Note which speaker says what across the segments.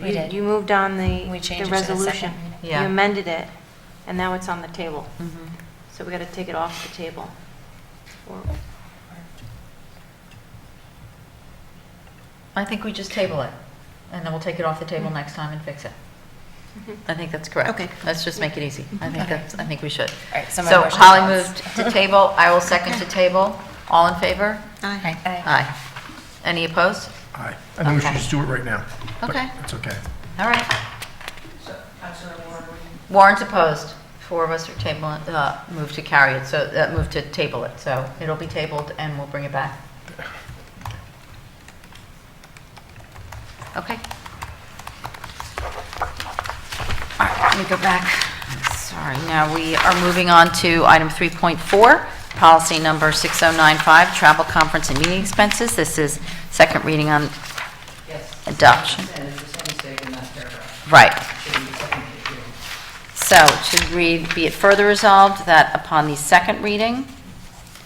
Speaker 1: We
Speaker 2: You-
Speaker 1: did.
Speaker 2: You moved on the,
Speaker 1: We changed
Speaker 2: the
Speaker 1: it to the second
Speaker 2: resolution.
Speaker 1: reading.
Speaker 2: You
Speaker 3: Yeah.
Speaker 2: amended it, and now it's on the table.
Speaker 3: Mm-hmm.
Speaker 2: So we got to take it off the table. Or-
Speaker 3: I think we just table it, and then we'll take it off the table next time and fix it. I think that's correct.
Speaker 1: Mm-hmm. Okay. Mm-hmm.
Speaker 3: Let's just make it easy. I think
Speaker 1: Okay.
Speaker 3: that's, I think we should.
Speaker 1: All right, so my
Speaker 3: So
Speaker 1: motion
Speaker 3: Holly
Speaker 1: was-
Speaker 3: moved to table, I will second to table. All in favor?
Speaker 1: Aye.
Speaker 3: Aye. Any opposed?
Speaker 4: Aye. I think we should
Speaker 3: Okay.
Speaker 4: just do it right now. but
Speaker 3: Okay.
Speaker 4: It's okay.
Speaker 3: All right. Warrants opposed. Four of us are table, uh, move to carry it, so, uh, move to table it. So it'll be tabled and we'll bring it back. Okay. All right, let me go back. Sorry, now we are moving on to item 3.4, policy number 6095, travel, conference, and meeting expenses. This is second reading on
Speaker 5: Yes.
Speaker 3: adoption.
Speaker 5: And there's just a mistake in that paragraph.
Speaker 3: Right.
Speaker 5: Should be the second page here.
Speaker 3: So it should read, be it further resolved that upon the second reading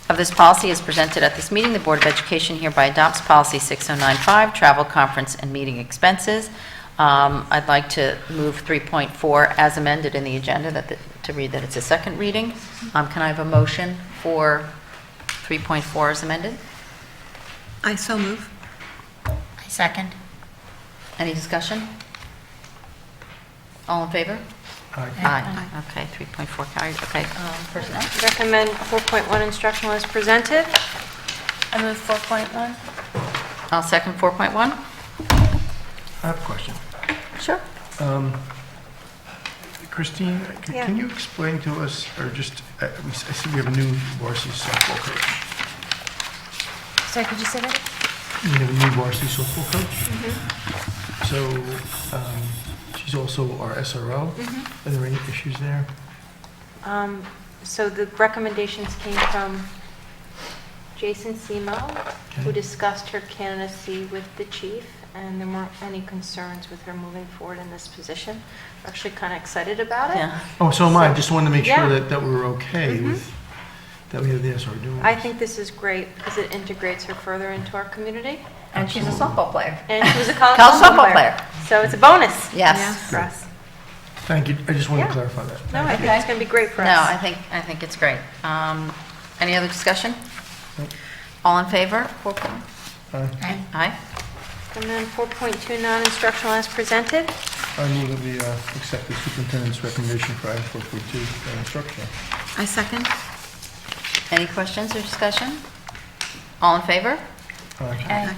Speaker 3: of this policy as presented at this meeting, the Board of Education hereby adopts Policy 6095, Travel, Conference, and Meeting Expenses. Um, I'd like to move 3.4 as amended in the agenda, that, the- to read that it's a second reading. Um, Can I have a motion for 3.4 as amended?
Speaker 6: I so move.
Speaker 1: I second.
Speaker 3: Any discussion? All in favor?
Speaker 4: Aye.
Speaker 3: Aye. Okay, 3.4 carried, okay. um, Personnel?
Speaker 2: Recommend 4.1 instructional as presented.
Speaker 1: I move 4.1.
Speaker 3: I'll second 4.1.
Speaker 4: I have a question.
Speaker 3: Sure.
Speaker 4: Um, Christine, c-
Speaker 2: Yeah.
Speaker 4: can you explain to us, or just, uh, we s- I see we have a new varsity softball coach.
Speaker 1: Sorry, could you say that?
Speaker 4: We have a new varsity softball coach.
Speaker 2: Mm-hmm.
Speaker 4: So um, she's also our SRO.
Speaker 1: Mm-hmm.
Speaker 4: Are there any issues there?
Speaker 2: Um, So the recommendations came from Jason Semo, who
Speaker 4: Okay.
Speaker 2: discussed her candidacy with the chief, and there weren't any concerns with her moving forward in this position. We're Actually kind of excited about it.
Speaker 3: Yeah.
Speaker 4: Oh, so am I. Just wanted to make
Speaker 2: Yeah. Mm-hmm.
Speaker 4: sure that, that we're okay with, that we have the SRO doing
Speaker 2: I
Speaker 4: this.
Speaker 2: think this is great because it integrates her further into our community.
Speaker 3: And she's a softball player.
Speaker 2: And she was a college
Speaker 3: College
Speaker 2: softball
Speaker 3: softball
Speaker 2: player.
Speaker 3: player.
Speaker 2: So it's a bonus.
Speaker 3: Yes.
Speaker 2: For us.
Speaker 4: Thank you. I just wanted
Speaker 2: Yeah.
Speaker 4: to clarify that.
Speaker 2: No, I think
Speaker 3: Okay.
Speaker 2: it's going to be great for
Speaker 3: No,
Speaker 2: us.
Speaker 3: I think, I think it's great. Um, Any other discussion? All in favor? 4.1?
Speaker 4: Aye.
Speaker 1: Aye.
Speaker 3: Aye.
Speaker 2: And then 4.2 non-instructional as presented.
Speaker 4: I move that we uh, accept the superintendent's recommendation for item 4.2, uh, instructional.
Speaker 6: I second.
Speaker 3: Any questions or discussion? All in favor?
Speaker 4: Aye.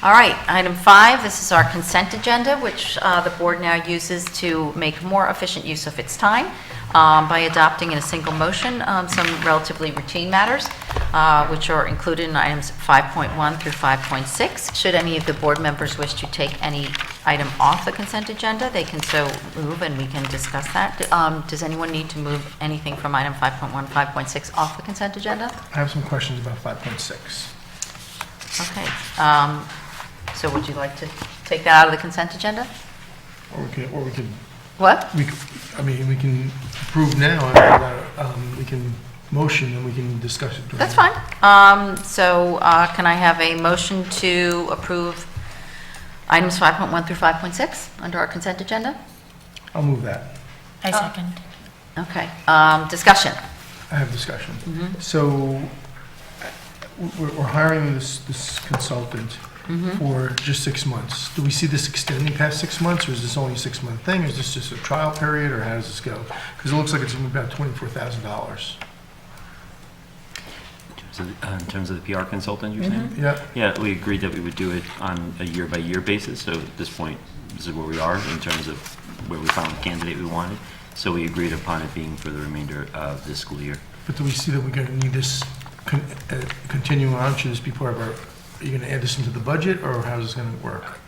Speaker 3: All right, item five, this is our consent agenda, which uh, the board now uses to make more efficient use of its time um, by adopting in a single motion um, some relatively routine matters, uh, which are included in items 5.1 through 5.6. Should any of the board members wish to take any item off the consent agenda, they can so move, and we can discuss that. Um, Does anyone need to move anything from item 5.1, 5.6 off the consent agenda?
Speaker 4: I have some questions about 5.6.
Speaker 3: Okay, um, so would you like to take that out of the consent agenda?
Speaker 4: Or we could, or we could,
Speaker 3: What?
Speaker 4: we, could- I mean, we can approve now, and, uh, um, we can motion, and we can discuss it. during-
Speaker 3: That's fine. Um, so, uh, can I have a motion to approve items 5.1 through 5.6 under our consent agenda?
Speaker 4: I'll move that.
Speaker 1: I second.
Speaker 3: Okay, um, discussion.
Speaker 4: I have discussion. So uh, we're we're hiring this this consultant for just six months. Do we see this extending past six months, or is this only a six-month thing? Is this just a trial period, or how does this go? Because it looks like it's about $24,000.
Speaker 7: terms of the- uh, In terms of the PR consultant, you're saying?
Speaker 4: Yeah,
Speaker 7: Yeah, we agreed that we would do it on a year-by-year basis, so at this point, this is where we are in terms of where we found the candidate we wanted. So we agreed upon it being for the remainder of this school year.
Speaker 4: but do we see that we're going to need this con- uh, continuing on? Should this be part of our, are you going to add this into the budget, or how's this going to work?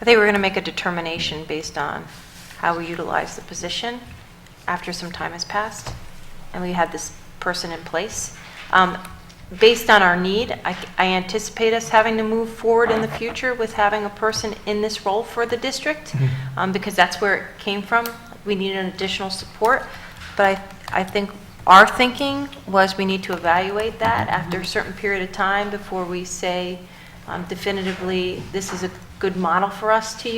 Speaker 2: I think we're going to make a determination based on how we utilize the position after some time has passed, and we had this person in place. Um, Based on our need, I I anticipate us having to move forward in the future with having a person in this role for the district,
Speaker 4: Mhm.
Speaker 2: um, because that's where it came from. We needed an additional support, but I I think our thinking was we need to evaluate that after a certain period of time before we say um, definitively, this is a good good model for us to use.